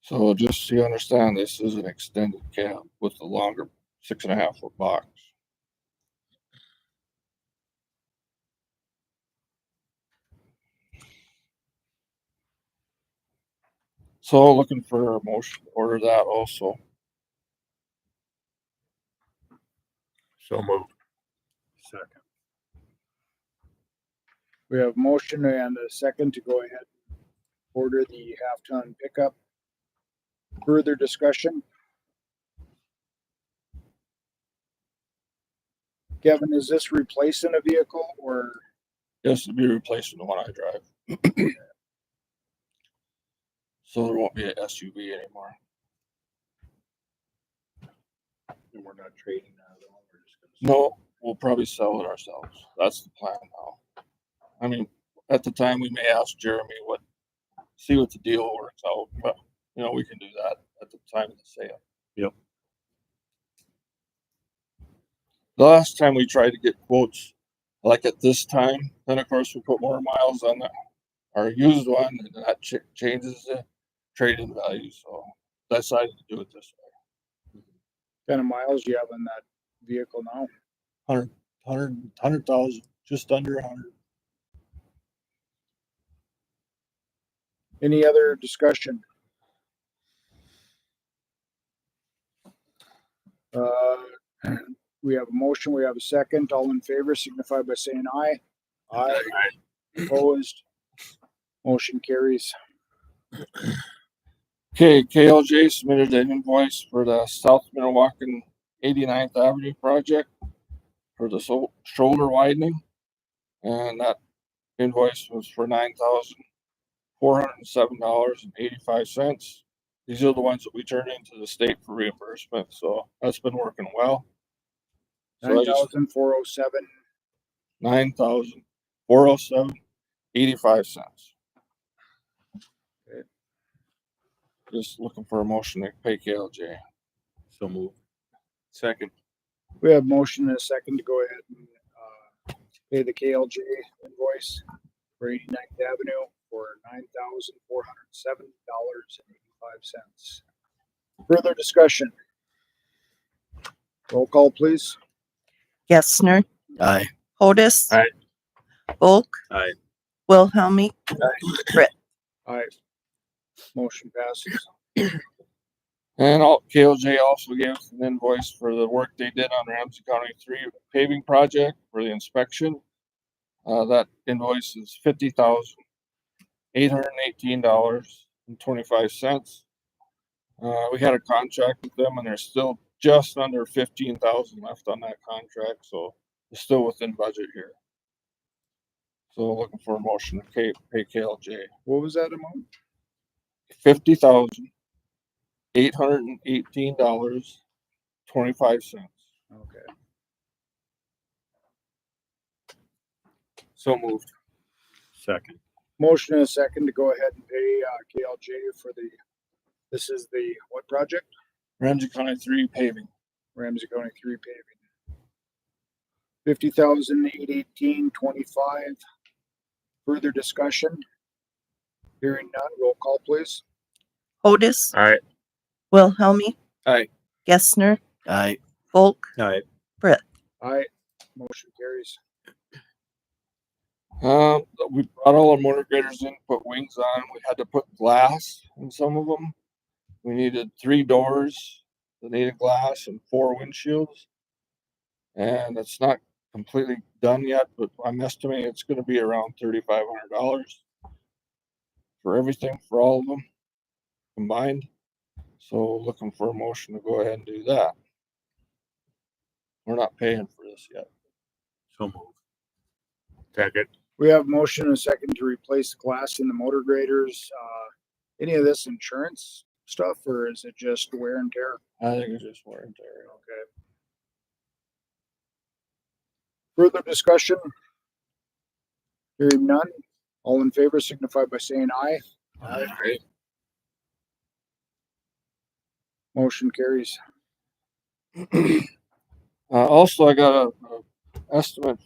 So just so you understand, this is an extended cab with the longer six and a half foot box. So looking for a motion, to order that also. So moved. Second. We have motion and a second to go ahead and order the half-ton pickup. Further discussion? Kevin, is this replacing a vehicle or This would be replacing the one I drive. So there won't be an SUV anymore. and we're not trading that at all? We're just gonna- No, we'll probably sell it ourselves. That's the plan now. I mean, at the time, we may ask Jeremy what, see what the deal works out, but, you know, we can do that at the time of the sale. Yep. The last time we tried to get quotes, like at this time, then of course we put more miles on the, our used one, and that ch- changes the trade-in value, so decided to do it this way. Kind of miles you have on that vehicle now? Hundred, hundred thousand, just under a hundred. Any other discussion? Uh, We have a motion, we have a second. All in favor signify by saying aye. Aye. Opposed? Motion carries. Okay, KLJ submitted an invoice for the South Minnewacan 89th Avenue project for the so- shoulder widening. And that invoice was for nine thousand four hundred and seven dollars and eighty-five cents. These are the ones that we turn into the state for reimbursement, so that's been working well. So I Nine just, thousand four oh seven. nine thousand four oh seven eighty-five cents. Okay. Just looking for a motion to pay KLJ. So moved. Second. We have motion and a second to go ahead and uh, pay the KLJ invoice for 89th Avenue for nine thousand four hundred seven dollars and eighty-five cents. Further discussion? Roll call, please. Gessner. Aye. Otis. Aye. Bulk. Aye. Wilhelmie. Aye. Motion passes. And all, KLJ also gave us an invoice for the work they did on Ramsey County three paving project for the inspection. Uh, that invoice is fifty thousand eight hundred and eighteen dollars and twenty-five cents. Uh, we had a contract with them and there's still just under fifteen thousand left on that contract, so it's still within budget here. So looking for a motion to pay, pay KLJ. What was that amount? fifty thousand eight hundred and eighteen dollars twenty-five cents. Okay. So moved. Second. Motion and a second to go ahead and pay uh, KLJ for the, this is the, what project? Ramsey County three paving. Ramsey County three paving. Fifty thousand eight eighteen twenty-five. Further discussion? Hearing none, roll call please. Otis. Aye. Wilhelmie. Aye. Gessner. Aye. Bulk. Aye. Aye, motion carries. Um, we brought all our motor graders in, put wings on. We had to put glass in some of them. We needed three doors that needed glass and four windshields. And it's not completely done yet, but I'm estimating it's gonna be around thirty-five hundred dollars for everything, for all of them combined. So looking for a motion to go ahead and do that. We're not paying for this yet. So moved. Second. We have motion and a second to replace the glass in the motor graders. Uh, any of this insurance stuff or is it just wear and tear? I think it's just wear and tear. Okay. Further discussion? Hearing none, all in favor signify by saying aye. Aye. Motion carries. Uh, also, I got a, a estimate